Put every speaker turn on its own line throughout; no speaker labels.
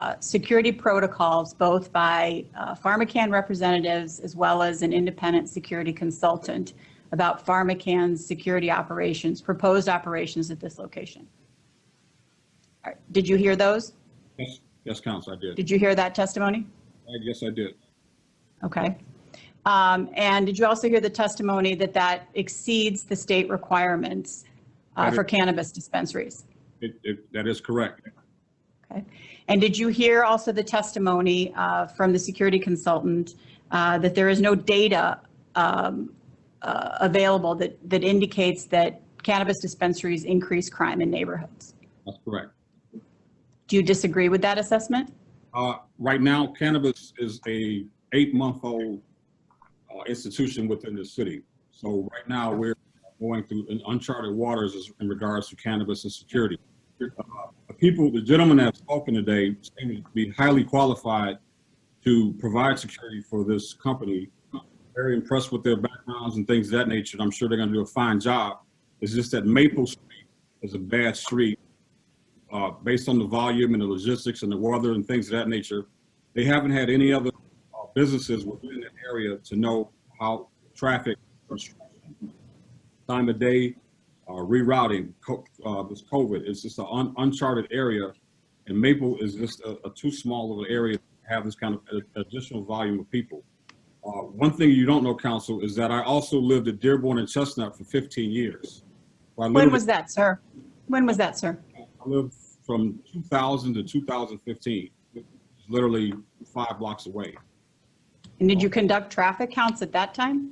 uh, security protocols, both by uh, PharmaCann representatives as well as an independent security consultant about PharmaCann's security operations, proposed operations at this location. All right, Did you hear those?
Yes, yes, Counsel, I did.
Did you hear that testimony?
I- Yes, I did.
Okay. Um, And did you also hear the testimony that that exceeds the state requirements uh, for
Better.
cannabis dispensaries?
It, it, that is correct.
Okay. And did you hear also the testimony uh, from the security consultant uh, that there is no data um, uh, available that, that indicates that cannabis dispensaries increase crime in neighborhoods?
That's correct.
Do you disagree with that assessment?
Uh, right now cannabis is a eight-month-old uh, institution within the city. So right now, we're going through uncharted waters as- in regards to cannabis and security. Uh, The people, the gentleman that's spoken today seem to be highly qualified to provide security for this company. Very impressed with their backgrounds and things of that nature. and I'm sure they're gonna do a fine job. It's just that Maple Street is a bad street uh, based on the volume and the logistics and the weather and things of that nature. They haven't had any other uh, businesses within the area to know how traffic, time of day, uh, rerouting, co- uh, this COVID, it's just an un- uncharted area. And Maple is just a, a too small of an area to have this kind of a- additional volume of people. Uh, one thing you don't know, council, is that I also lived at Dearborn and Chestnut for 15 years. So I
When
literally-
was that, sir? When was that, sir?
I lived from 2000 to 2015, It's literally five blocks away.
And did you conduct traffic counts at that time?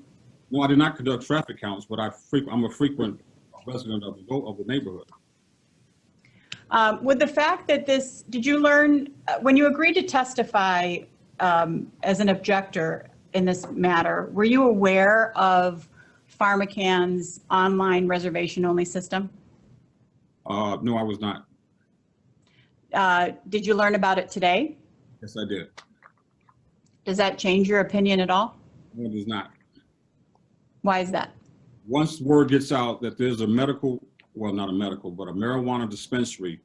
No, I did not conduct traffic counts, but I frequent, I'm a frequent resident of the, go- of the neighborhood.
Um, With the fact that this, did you learn, uh, when you agreed to testify um, as an objector in this matter, were you aware of PharmaCann's online reservation-only system?
Uh, no, I was not.
Uh, Did you learn about it today?
Yes, I did.
Does that change your opinion at all?
No, it is not.
Why is that?
Once word gets out that there's a medical, well, not a medical, but a marijuana dispensary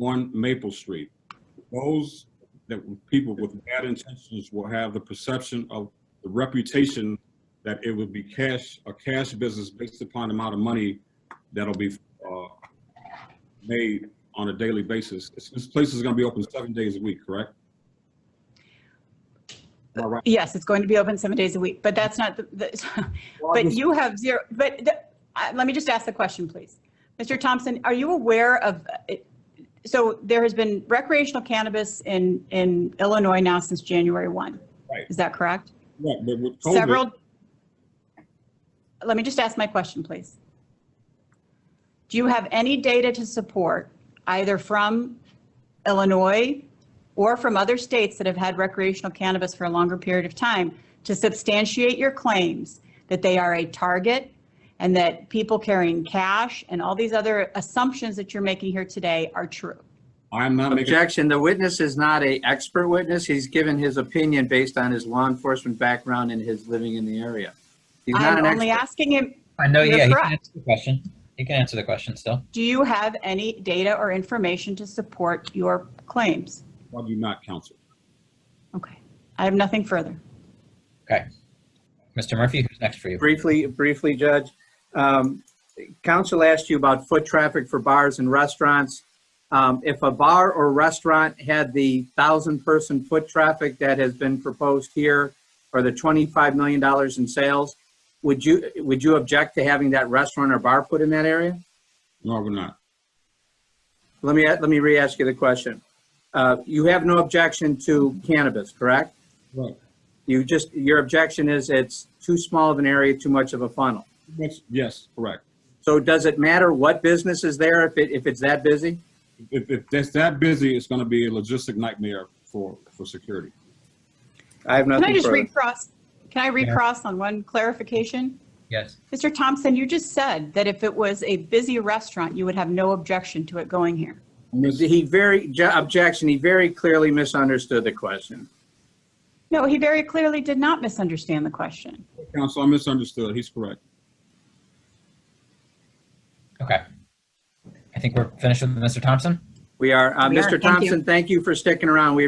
on Maple Street, those that people with bad intentions will have the perception of the reputation that it would be cash, a cash business based upon the amount of money that'll be uh, made on a daily basis. This- This place is going to be open seven days a week, correct? Am I right?
Yes, it's going to be open seven days a week, but that's not, the- the. but you have zero, but the- uh, let me just ask the question, please. Mr. Thompson, are you aware of, uh, so there has been recreational cannabis in, in Illinois now since January 1.
Right.
Is that correct?
Yeah, but with COVID-
Several, let me just ask my question, please. Do you have any data to support, either from Illinois or from other states that have had recreational cannabis for a longer period of time, to substantiate your claims that they are a target and that people carrying cash and all these other assumptions that you're making here today are true?
I'm not making.
Objection, the witness is not a expert witness. He's given his opinion based on his law enforcement background and his living in the area. He's not
I'm
an
only
expert.
asking him,
I know,
You're
yeah, he
correct.
can answer the question. He can answer the question still.
do you have any data or information to support your claims?
Why do you not, counsel?
Okay, I have nothing further.
Mr. Murphy, who's next for you?
Briefly, briefly, Judge, um, counsel asked you about foot traffic for bars and restaurants. Um, If a bar or restaurant had the thousand-person foot traffic that has been proposed here, or the $25 million in sales, would you, would you object to having that restaurant or bar put in that area?
No, we're not.
Let me, let me re-ask you the question. Uh, You have no objection to cannabis, correct?
Right.
You just, your objection is it's too small of an area, too much of a funnel.
Yes, Yes, correct.
So does it matter what business is there if it, if it's that busy?
If, if that's that busy, it's gonna be a logistic nightmare for, for security.
I have
Can I
nothing
just
further.
recross, can I recross on one clarification?
Yes.
Mr. Thompson, you just said that if it was a busy restaurant, you would have no objection to it going here.
Miss-
He very, ju- objection, he very clearly misunderstood the question.
No, he very clearly did not misunderstand the question.
Counsel, I misunderstood. He's correct.
Okay. I think we're finished with Mr. Thompson.
We are. Uh,
We are.
Mr.
Thank you.
Thompson, thank you for sticking around. We